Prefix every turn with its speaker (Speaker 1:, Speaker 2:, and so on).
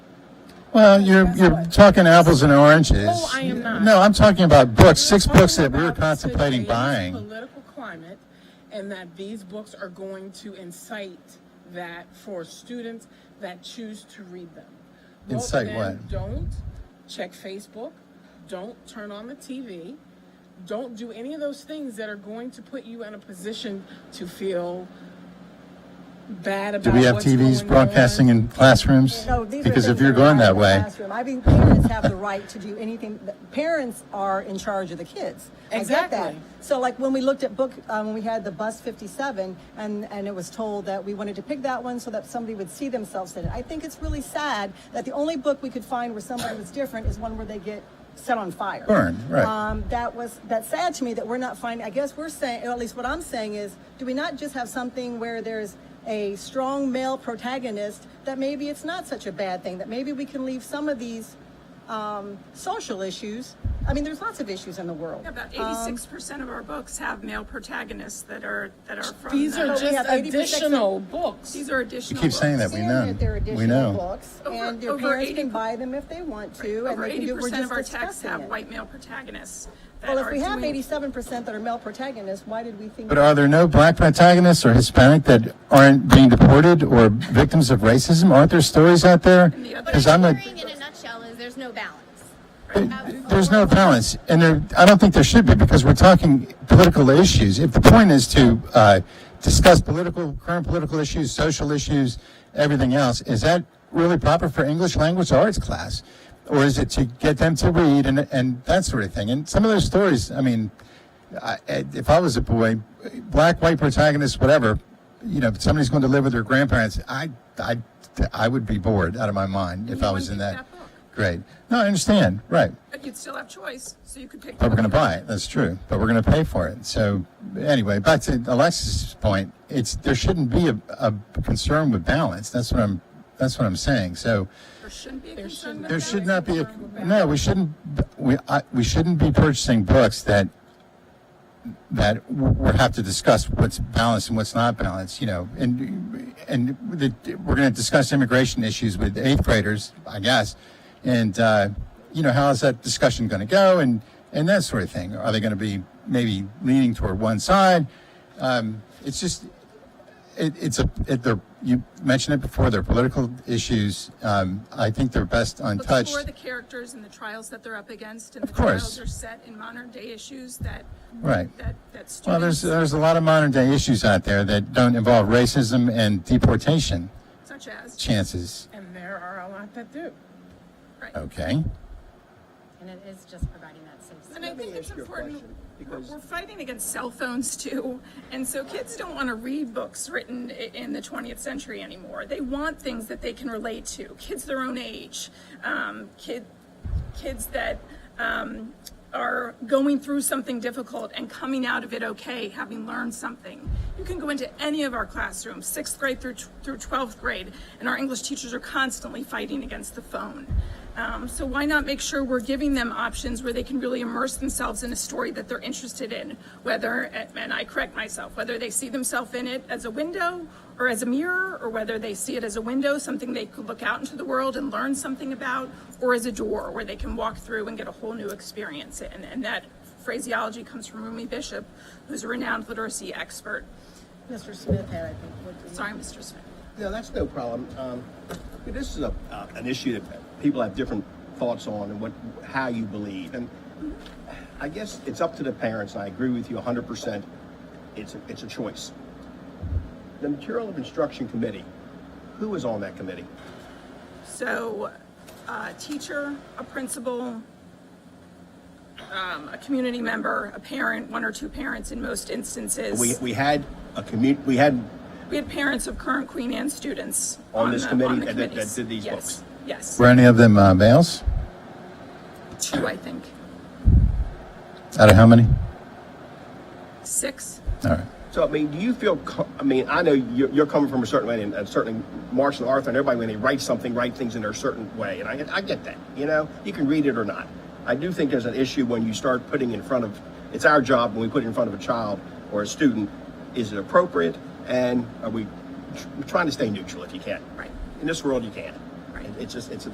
Speaker 1: Well, you're, you're talking apples and oranges.
Speaker 2: No, Oh, I am not.
Speaker 1: No, I'm talking about books, six books that we
Speaker 2: Talking
Speaker 1: were
Speaker 2: about
Speaker 1: contemplating
Speaker 2: today's
Speaker 1: buying.
Speaker 2: Political climate, and that these books are going to incite that for students that choose to read them. Vote
Speaker 1: Incite
Speaker 2: then,
Speaker 1: what?
Speaker 2: Don't check Facebook, don't turn on the TV, don't do any of those things that are going to put you in a position to feel bad about
Speaker 1: Do we have
Speaker 2: what's
Speaker 1: TVs
Speaker 2: going
Speaker 1: broadcasting
Speaker 2: on.
Speaker 1: in classrooms?
Speaker 3: No, these are
Speaker 1: Because if
Speaker 3: things
Speaker 1: you're
Speaker 3: that are
Speaker 1: going
Speaker 3: not
Speaker 1: that
Speaker 3: in the
Speaker 1: way,
Speaker 3: classroom. I think parents have the right to do anything. the- Parents are in charge of the kids. I get that.
Speaker 2: Exactly.
Speaker 3: So like when we looked at book, um, when we had the bus 57 and, and it was told that we wanted to pick that one so that somebody would see themselves in it. I think it's really sad that the only book we could find where somebody was different is one where they get set on fire.
Speaker 1: Burn, right.
Speaker 3: Um, that was, that's sad to me that we're not finding, I guess we're saying, or at least what I'm saying is, do we not just have something where there's a strong male protagonist that maybe it's not such a bad thing, that maybe we can leave some of these um, social issues. I mean, there's lots of issues in the world.
Speaker 4: About eighty-six percent of our books have male protagonists that are, that are from.
Speaker 2: These are
Speaker 4: the-
Speaker 3: we have
Speaker 2: just
Speaker 3: 80%
Speaker 2: additional books.
Speaker 4: These are
Speaker 1: you
Speaker 4: additional.
Speaker 1: keep saying that,
Speaker 4: books.
Speaker 1: we
Speaker 3: Seeing
Speaker 1: know.
Speaker 3: that there
Speaker 1: We
Speaker 3: are additional
Speaker 1: know.
Speaker 3: books,
Speaker 4: Over-
Speaker 3: and their
Speaker 4: over
Speaker 3: parents can
Speaker 4: 80
Speaker 3: buy them if they want to, and
Speaker 4: Over
Speaker 3: they can
Speaker 4: eighty
Speaker 3: do, we're
Speaker 4: percent
Speaker 3: just
Speaker 4: of our texts
Speaker 3: discussing
Speaker 4: have
Speaker 3: it.
Speaker 4: white male protagonists that
Speaker 3: Well, if
Speaker 4: are
Speaker 3: we have
Speaker 4: doing.
Speaker 3: eighty-seven percent that are male protagonists, why did we think?
Speaker 1: but uh, are there no black protagonists or Hispanic that aren't being deported or victims of racism? Aren't there stories out there?
Speaker 4: other-
Speaker 1: Because
Speaker 5: what
Speaker 1: I'm
Speaker 5: I'm
Speaker 1: a,
Speaker 5: hearing in a nutshell is there's no balance.
Speaker 1: there's no balance, and there, I don't think there should be because we're talking political issues. If the point is to uh, discuss political, current political issues, social issues, everything else, is that really proper for English language arts class, or is it to get them to read and and that sort of thing? And some of those stories, I mean, I, I- if I was a boy, black, white protagonist, whatever, you know, if somebody's going to live with their grandparents, I I I would be bored out of my mind if I was in
Speaker 4: wouldn't
Speaker 1: that.
Speaker 4: pick that book.
Speaker 1: Great. No, I understand. Right.
Speaker 4: But you'd still have choice, so you could pick.
Speaker 1: But we're going to buy it. That's true. But we're going to pay for it. So anyway, back to Alexis's point. It's there shouldn't be a, a concern with balance. That's what I'm. That's what I'm saying. So
Speaker 4: There shouldn't be a concern with
Speaker 1: there
Speaker 4: that.
Speaker 1: should not be a no. We shouldn't. We I, we shouldn't be purchasing books that that we have to discuss what's balanced and what's not balanced. You know, and and the, we're going to discuss immigration issues with eighth graders, I guess. And uh, you know, how is that discussion going to go? And and that sort of thing. Are they going to be maybe leaning toward one side? Um, it's just it, it's a it, they're, you mentioned it before. They're political issues. Um, I think they're best
Speaker 4: But
Speaker 1: untouched.
Speaker 4: for the characters and the trials that they're up against, and the
Speaker 1: course.
Speaker 4: trials are set in modern day issues that.
Speaker 1: Right.
Speaker 4: That, that students.
Speaker 1: Well, there's there's a lot of modern day issues out there that don't involve racism and deportation
Speaker 4: Such as,
Speaker 1: chances.
Speaker 2: And there are a lot that do.
Speaker 4: right.
Speaker 1: Okay.
Speaker 5: And it is just providing that safe space.
Speaker 4: And I think it's important, we're we're fighting against cell phones too. And so kids don't want to read books written i- in the 20th century anymore. They want things that they can relate to, kids their own age, um, kid, kids that um, are going through something difficult and coming out of it okay, having learned something. You can go into any of our classrooms, sixth grade through, tw- through 12th grade, and our English teachers are constantly fighting against the phone. Um, so why not make sure we're giving them options where they can really immerse themselves in a story that they're interested in, whether, and I correct myself, whether they see themselves in it as a window or as a mirror, or whether they see it as a window, something they could look out into the world and learn something about, or as a door where they can walk through and get a whole new experience. And, and that phraseology comes from Rumi Bishop, who's a renowned literacy expert.
Speaker 3: Mr. Smith had, I think, what the-
Speaker 4: Sorry, Mr. Smith.
Speaker 6: No, that's no problem. Um, this is a, uh, an issue that people have different thoughts on and what, how you believe. And I guess it's up to the parents, and I agree with you 100%. It's a, it's a choice. The Material of Instruction Committee, who is on that committee?
Speaker 4: So, a teacher, a principal, um, a community member, a parent, one or two parents in most instances.
Speaker 6: We, we had a commu, we had,
Speaker 4: We had parents of current Queen Anne students.
Speaker 6: On this
Speaker 4: the-
Speaker 6: committee
Speaker 4: on the
Speaker 6: that- that- that
Speaker 4: committees.
Speaker 6: did these
Speaker 4: Yes,
Speaker 6: books.
Speaker 4: Yes,
Speaker 1: Were any of them uh, males?
Speaker 4: two, I think,
Speaker 1: Out of how many?
Speaker 4: six.
Speaker 1: All right.
Speaker 6: so I mean, do you feel, co- I mean, I know you're, you're coming from a certain way, and and certainly Marshall Arthur and everybody, when they write something, write things in their certain way. And I, get- I get that, you know, you can read it or not. I do think there's an issue when you start putting in front of, it's our job when we put it in front of a child or a student, is it appropriate? And are we tr- trying to stay neutral if you can?
Speaker 4: Right.
Speaker 6: In this world, you can.
Speaker 4: Right.
Speaker 6: It's just, it's a